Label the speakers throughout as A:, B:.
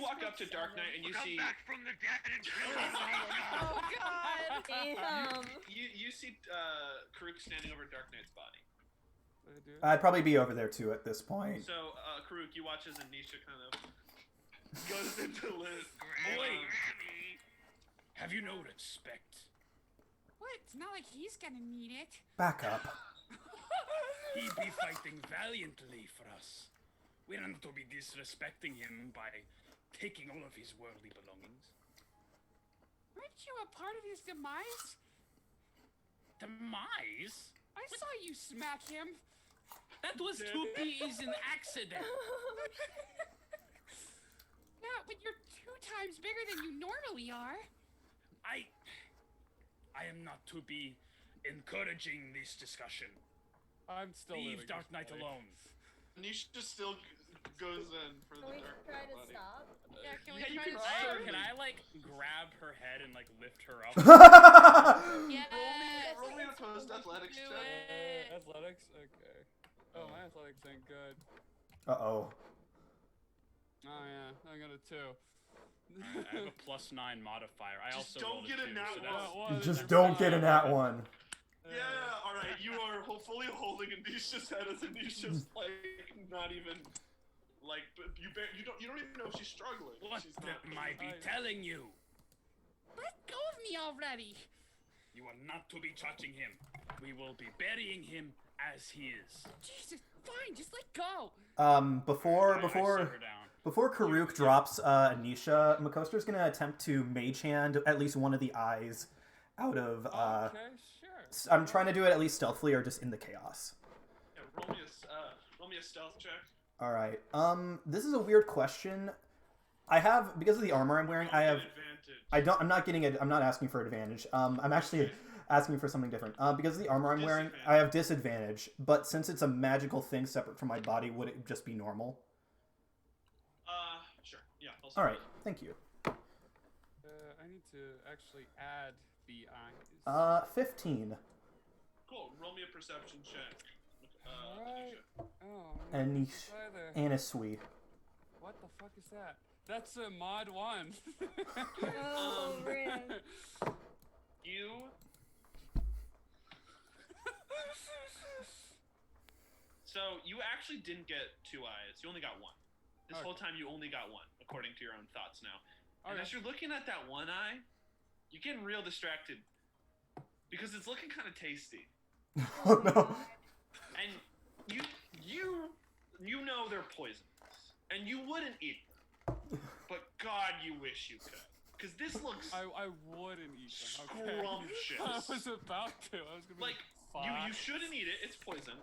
A: walk up to Dark Knight and you
B: Come
A: see
B: back from the dead and kill us all.
C: Oh god.
D: Damn.
A: you you see uh, Karuk standing over Dark Knight's body.
E: I do.
F: I'd probably be over there too at this point.
A: So uh, Karuk, you watch as Anisha kind of goes into Liz. Boy,
B: Grammy.
G: Have you no respect?
C: What? It's not like he's gonna need it.
F: Back up.
G: He be fighting valiantly for us. We're not to be disrespecting him by taking all of his worldly belongings.
C: Weren't you a part of his demise?
G: Demise?
C: I saw you smack him.
G: That was to be is an accident.
C: Yeah, but you're two times bigger than you normally are.
G: I I am not to be encouraging this discussion.
E: I'm still
G: Leave
E: living
G: Dark
E: this
G: Knight
E: body.
G: alone.
A: Anisha just still goes in for the
D: Can we
A: Dark
D: try
A: Knight
D: to
A: body.
D: stop?
C: Yeah, can we
A: Yeah, you can
C: try to
A: try.
C: stop?
A: Can I,
G: like grab her head and like lift her up?
C: Yes.
A: Roll me a post athletics
C: Do
A: check.
D: Eh.
C: it.
E: Uh, athletics? Okay. Oh, my athletics ain't good.
F: Uh oh.
E: Oh, yeah. I got a two.
G: I have a plus nine modifier. I
A: Just
G: also
A: don't
G: rolled a
A: get a
G: two,
A: nat
G: so
A: one.
G: that's-
E: Well,
F: Just
E: it's
F: don't get
E: fine.
F: in that one.
E: Uh,
A: Yeah, all right. You are hopefully holding Anisha's head as Anisha's like not even like b- you. Bear, you don't. You don't even know if she's struggling.
G: What
A: she's
G: am I be
E: I-
G: telling you?
C: Let go of me already.
G: You are not to be touching him. We will be burying him as he is.
C: Jesus, fine, just let go.
F: Um, before
G: I- I set her
F: before
G: down.
F: before Karuk drops uh, Anisha, Makostra's gonna attempt to mage hand at least one of the eyes out of. Uh,
E: Okay, sure.
F: s- I'm trying to do it at least stealthily or just in the chaos.
A: Yeah, roll me a s- uh, roll me a stealth check.
F: All right. Um, this is a weird question. I have because of the armor I'm wearing.
A: Don't
F: I
A: get
F: have.
A: advantage.
F: I don't. I'm not getting it. I'm not asking for advantage. Um, I'm actually asking for something different. Uh, because of the armor I'm wearing, I have disadvantage. But since it's a magical thing separate from my body, would it just be normal?
A: Uh, sure. Yeah. I'll
F: All right. Thank you.
E: Uh, I need to actually add the eyes.
F: Uh, 15.
A: Cool. Roll me a perception check. Uh,
E: Alright.
A: Anisha.
E: oh, I'm not
F: Anish.
E: this either.
F: Anisui.
E: What the fuck is that? That's a mod one.
D: Oh, man.
A: You So you actually didn't get two eyes. You only got one. This
E: Okay.
A: whole time you only got one, according to your own thoughts now. And
E: Okay.
A: as you're looking at that one eye, you're getting real distracted because it's looking kind of tasty.
F: Oh no.
A: And you you you know they're poisonous, and you wouldn't eat them. But God, you wish you could, because this looks
E: I, I wouldn't eat them. Okay.
A: scrumptious.
E: I was about to. I was gonna be
A: like
E: fuck.
A: you you shouldn't eat it. It's poison.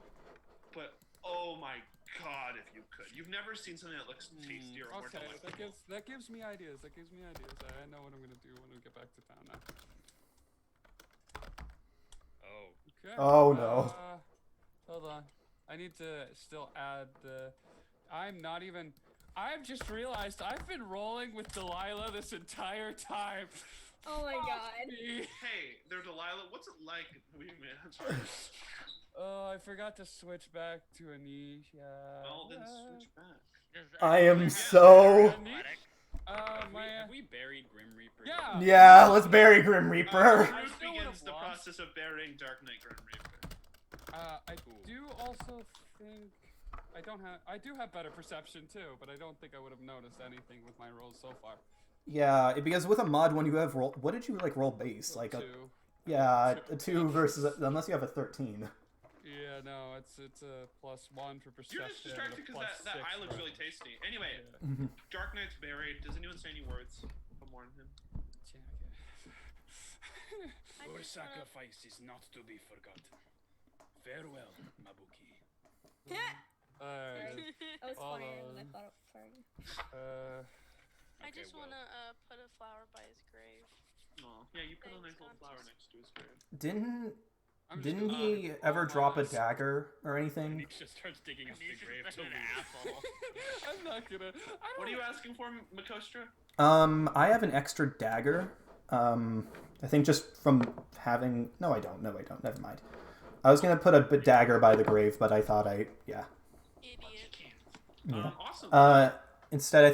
A: But oh my God, if you could, you've never seen something that looks
G: Hmm,
A: tastier or more
E: Okay, that
A: delightful.
E: gives that gives me ideas. That gives me ideas. I know what I'm gonna do when we get back to town now.
G: Oh.
E: Okay.
F: Oh, no.
E: Uh, hold on. I need to still add the. I'm not even. I've just realized I've been rolling with Delilah this entire time.
D: Oh my god.
A: Hey, there, Delilah. What's it like? Wait, man, I'm sorry.
E: Oh, I forgot to switch back to Anisha.
A: well, then switch back.
B: Does
F: I am
B: anyone have
F: so-
B: athletic?
E: Uh,
G: Have we,
E: my.
G: have we buried Grim Reaper?
E: Yeah.
F: Yeah, let's bury Grim Reaper.
A: Uh, Ruth
E: still would've
A: begins the
E: lost.
A: process of burying Dark Knight Grim Reaper.
E: Uh, I
G: Cool.
E: do also think I don't have I do have better perception too, but I don't think I would have noticed anything with my rolls so far.
F: Yeah, because with a mod, when you have roll, what did you like roll base? Like a
E: two.
F: yeah, a two versus a, unless you have a thirteen.
E: Yeah, no, it's it's a plus one for perception.
A: You're just distracted because that, that eye looks really tasty. Anyway,
F: Mhm.
A: Dark Knight's buried. Does anyone say any words? to warn him.
G: Your
E: uh,
G: sacrifice is not to be forgotten. Farewell, Mabuki.
E: Alright.
D: I was
E: All
D: flying and I
E: on.
D: thought it was flying.
E: Uh,
H: I
G: Okay,
H: just
G: well,
H: want to uh, put a flower by his grave.
A: Aw. Yeah, you put a nice
H: Thanks,
A: little
H: God.
A: flower next to his grave.
F: Didn't
E: I'm just
F: didn't
E: gonna-
F: he
E: uh,
F: ever
E: roll my
F: drop a
E: eyes.
F: dagger or anything?
G: Anisha starts digging up
B: He's
G: the
B: just
G: grave to
B: been an
G: loot.
B: asshole.
E: I'm not gonna. I don't
A: What are you asking for, M- Makostra?
F: Um, I have an extra dagger. Um, I think just from having. No, I don't. No, I don't. Never mind. I was gonna put a b- dagger by the grave, but I thought I yeah.
H: Idiot.
F: yeah.
A: Um, awesome.
F: Uh, instead, I